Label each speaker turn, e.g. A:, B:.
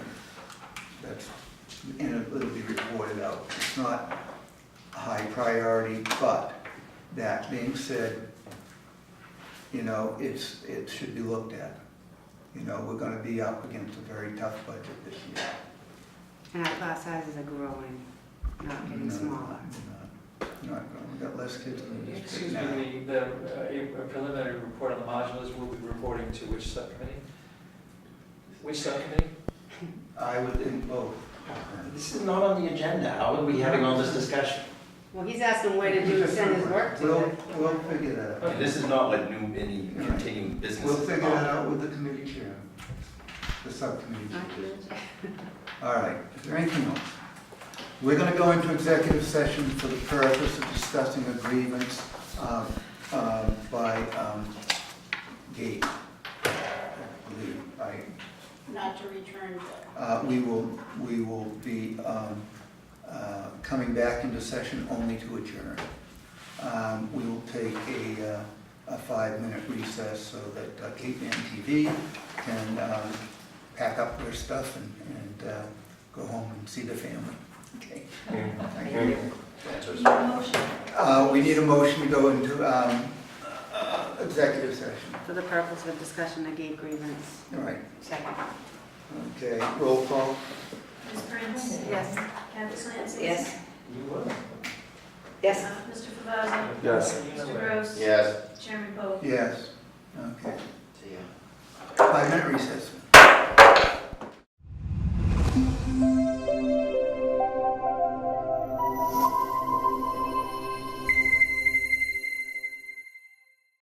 A: and it'll be reported out. It's not a high priority, but that being said, you know, it's, it should be looked at. You know, we're gonna be up against a very tough budget this year.
B: And our class sizes are growing, not getting
A: No,
B: smaller.
A: no, no, no, we got less kids in the district
C: Excuse
A: now.
C: me, the, uh, a preliminary report on the modulars will be reporting to which subcommittee? Which subcommittee?
A: I would think both.
D: This is not on the agenda, how are we having all this discussion?
B: Well, he's asking where to do, send his work to.
A: We'll, we'll figure that out.
C: Okay.
D: This is not like new, any continuing business.
A: We'll figure that out with the committee chair, the subcommittee
B: Not
A: chair.
B: you.
A: All right, is there anything else? We're gonna go into executive session for the purpose of discussing agreements um, um, by um, Gate. I believe. I-
E: not to return to
A: uh, We will, we will be um, uh, coming back into session only to adjourn. Um, We will take a, uh, a five-minute recess so that uh, Cape Ann TV can um, pack up their stuff and, and uh, go home and see the family. Okay? Thank you. Uh, We need a motion to go into um, uh, executive session.
B: For the purpose of discussion of gate grievance.
A: All right,
B: Second.
A: okay, roll call.
F: Ms. Prince?
B: Yes.
F: Candace Lancy?
B: Yes.
C: You will.
B: Yes.
F: Uh, Mr. Favazza?
C: Yes.
F: Mr. Gross?
D: Yes.
F: Chairman Poe?
A: Yes, okay.
D: See ya.
A: Five-minute recess.